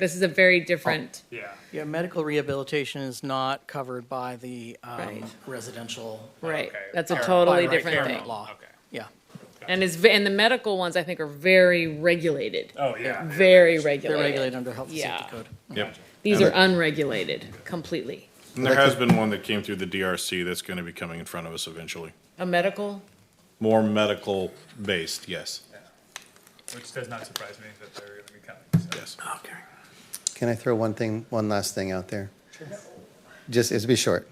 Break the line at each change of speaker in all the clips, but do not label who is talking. This is a
Oh.
very different,
Yeah.
Yeah, medical rehabilitation is not covered by the um,
Right.
residential.
right,
Okay.
that's a
Alright.
totally
by right
different
Oh, paramount
thing.
Law,
Okay.
yeah.
And it's, ve- and the medical ones, I think, are very regulated,
Oh, yeah.
very
They're
regulated.
regulated under health and
Yeah.
safety code. Oh.
Yep.
These are unregulated completely.
And there has been one that came through the DRC that's going to be coming in front of us eventually.
A medical,
More medical based, yes,
Which does not surprise me that they're going to be coming. so.
yes.
Okay.
Can I throw one thing, one last thing out there? Just, it'll be short.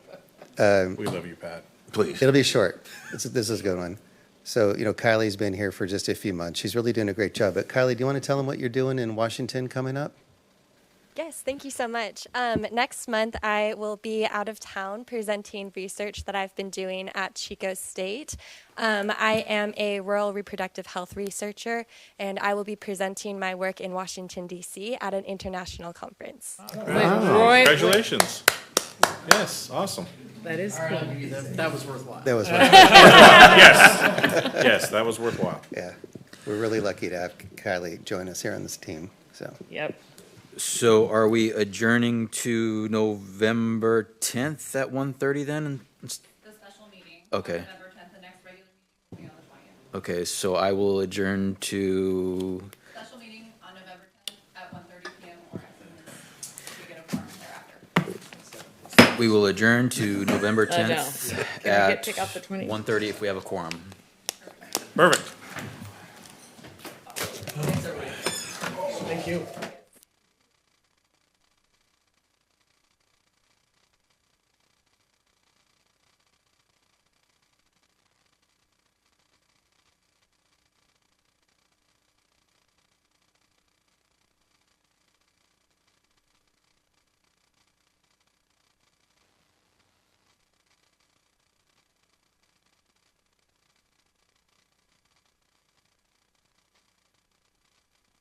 We love you, Pat.
Please.
It'll be short. This is, this is a good one. So, you know, Kylie's been here for just a few months. She's really doing a great job. But Kylie, do you want to tell them what you're doing in Washington coming up?
Yes, thank you so much. Um, next month, I will be out of town presenting research that I've been doing at Chico State. Um, I am a rural reproductive health researcher, and I will be presenting my work in Washington, D.C. at an international conference.
Oh.
Roy,
Congratulations. Yes, awesome.
that is cool.
That was worthwhile.
That was, wonderful.
Yes, that was worthwhile.
yeah. We're really lucky to have Kylie join us here on this team, so.
Yep.
So are we adjourning to November 10th at 1:30 then?
the special meeting.
Okay.
On November tenth, the next regular meeting will be on the twentieth.
Okay, so I will adjourn to,
Special meeting on November tenth at one thirty P M or as soon as we get a form thereafter.
we will adjourn to November
I know.
10th
Can we
at
get, pick up the twenty?
1:30 if we have a quorum.
Perfect.
Thank you.